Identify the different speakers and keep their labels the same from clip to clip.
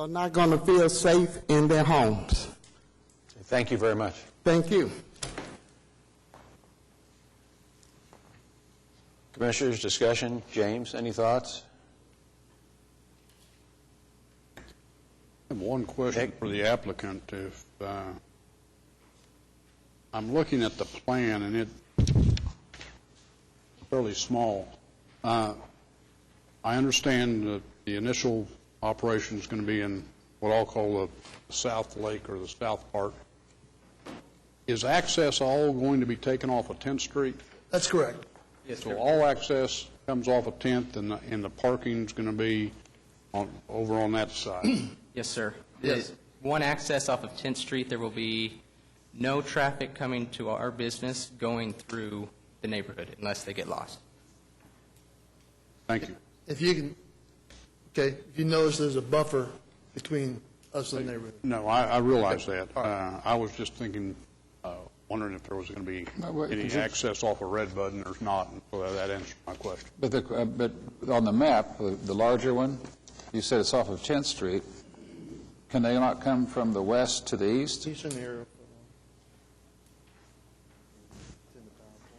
Speaker 1: are not going to feel safe in their homes.
Speaker 2: Thank you very much.
Speaker 1: Thank you.
Speaker 2: Commissioners, discussion? James, any thoughts?
Speaker 3: I have one question
Speaker 2: Nick?
Speaker 3: for the applicant. If, uh, I'm looking at the plan, and it's fairly small. Uh, I understand that the initial operation is going to be in what I'll call the south lake or the south part. Is access all going to be taken off of 10th Street?
Speaker 4: That's correct.
Speaker 3: So all access comes off of 10th, and the- and the parking's going to be on, over on that side?
Speaker 5: Yes, sir.
Speaker 4: Yes.
Speaker 5: The One access off of 10th Street, there will be no traffic coming to our business going through the neighborhood unless they get lost.
Speaker 3: Thank you.
Speaker 4: If you can, okay, if you notice there's a buffer between us and the neighborhood.
Speaker 3: No, I, I realize that. Uh, I was just thinking, uh, wondering if there was going to be
Speaker 6: No, wait,
Speaker 3: any
Speaker 6: is it-
Speaker 3: access off of Red Bud, and there's not, and so that answers my question.
Speaker 6: But, the, uh, but on the map, the the larger one, you said it's off of 10th Street. Can they not come from the west to the east?
Speaker 4: He's in here.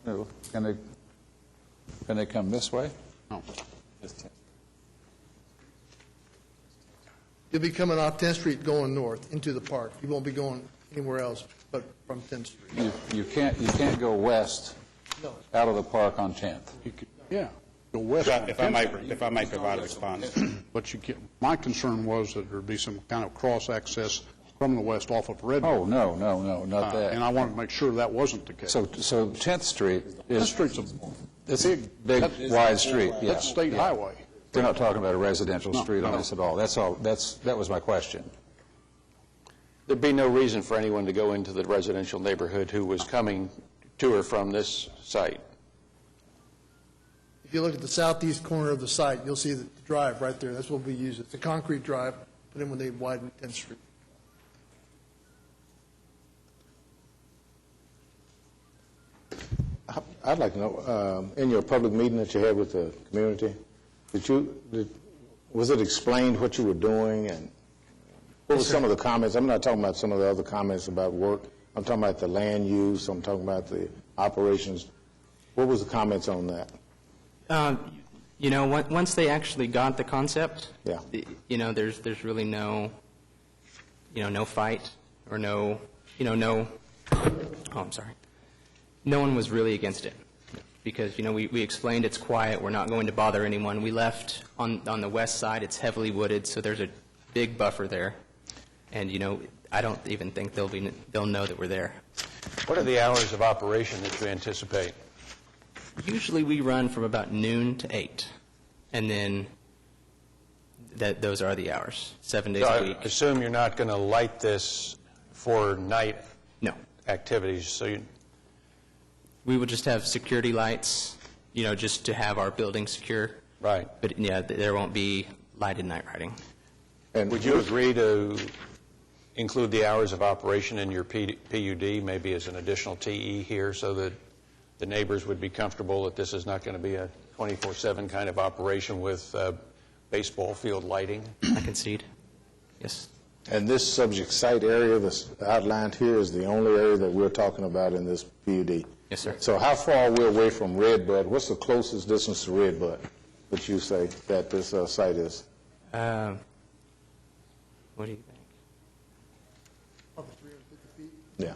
Speaker 6: No. Can they, can they come this way?
Speaker 3: No.
Speaker 4: You'll be coming off 10th Street going north into the park. You won't be going anywhere else but from 10th Street.
Speaker 6: You, you can't, you can't go west
Speaker 4: No.
Speaker 6: out of the park on 10th.
Speaker 3: You could- Yeah, go west.
Speaker 7: If I- If I
Speaker 3: on
Speaker 7: might,
Speaker 3: 10th Street.
Speaker 7: if I might provide a response.
Speaker 3: But you get, my concern was that there'd be some kind of cross-access from the west off of Red Bud.
Speaker 6: Oh, no, no, no, not
Speaker 3: Uh, And I
Speaker 6: that.
Speaker 3: wanted to make sure that wasn't the case.
Speaker 6: So, so 10th Street
Speaker 3: 10th
Speaker 6: is,
Speaker 3: Street's a,
Speaker 6: it's a big, wide street, yeah.
Speaker 3: that's state highway.
Speaker 6: They're not talking about a residential
Speaker 3: No,
Speaker 6: street on
Speaker 3: no.
Speaker 6: this at all. That's all, that's, that was my question.
Speaker 2: There'd be no reason for anyone to go into the residential neighborhood who was coming to or from this site.
Speaker 4: If you look at the southeast corner of the site, you'll see the drive right there. That's what we use. It's a concrete drive, but then when they widen 10th Street.
Speaker 8: I'd like to know, um, in your public meeting that you had with the community, did you, did- was it explained what you were doing and what were some of the comments? I'm not talking about some of the other comments about work. I'm talking about the land use, I'm talking about the operations. What was the comments on that?
Speaker 5: Um, You know, on- once they actually got the concept,
Speaker 8: Yeah.
Speaker 5: y- you know, there's, there's really no, you know, no fight or no, you know, no, oh, I'm sorry. No one was really against it because, you know, we, we explained it's quiet, we're not going to bother anyone. We left on, on the west side, it's heavily wooded, so there's a big buffer there. And, you know, I don't even think they'll be, they'll know that we're there.
Speaker 2: What are the hours of operation that you anticipate?
Speaker 5: Usually we run from about noon to eight, and then that, those are the hours, seven days a
Speaker 2: I
Speaker 5: week.
Speaker 2: assume you're not going to light this for night
Speaker 5: No,
Speaker 2: activities, so you,
Speaker 5: we would just have security lights, you know, just to have our building secure.
Speaker 2: right.
Speaker 5: But yeah, th- there won't be lighted night riding.
Speaker 8: And
Speaker 2: Would you agree to include the hours of operation in your P- PUD, maybe as an additional TE here, so that the neighbors would be comfortable that this is not going to be a 24/7 kind of operation with uh, baseball field lighting?
Speaker 5: I concede. Yes.
Speaker 8: And this subject site area that's outlined here is the only area that we're talking about in this PUD?
Speaker 5: Yes, sir.
Speaker 8: So how far are we away from Red Bud? What's the closest distance to Red Bud that you say that this uh, site is?
Speaker 5: Um, what do you think?
Speaker 8: Yeah.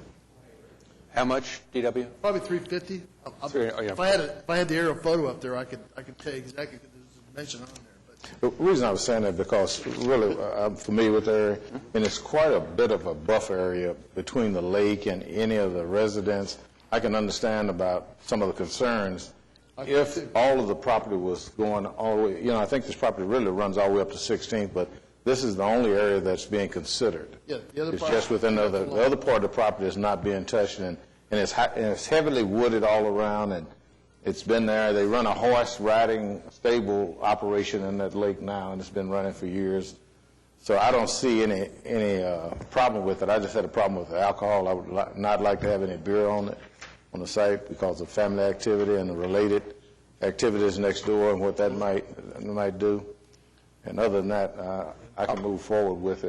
Speaker 2: How much, DW?
Speaker 4: Probably 350. I- I-
Speaker 2: Three- oh, yeah.
Speaker 4: If I had, a- if I had the aerial photo up there, I could, I could tell you exactly, because there's a dimension on there, but.
Speaker 8: The reason I was saying that because really uh, I'm familiar with the area, and it's quite a bit of a buffer area between the lake and any of the residents. I can understand about some of the concerns if all of the property was going all the way, you know, I think this property really runs all the way up to 16th, but this is the only area that's being considered.
Speaker 4: Yeah, the other
Speaker 8: It's
Speaker 4: part-
Speaker 8: just within the other, the other part of the property is not being touched, and, and it's, hi- and it's heavily wooded all around, and it's been there, they run a horse riding stable operation in that lake now, and it's been running for years. So I don't see any, any uh, problem with it, I just had a problem with the alcohol, I would li- not like to have any beer on it, on the site, because of family activity and the related activities next door and what that might, might do. And other than that, uh, I can move forward with it.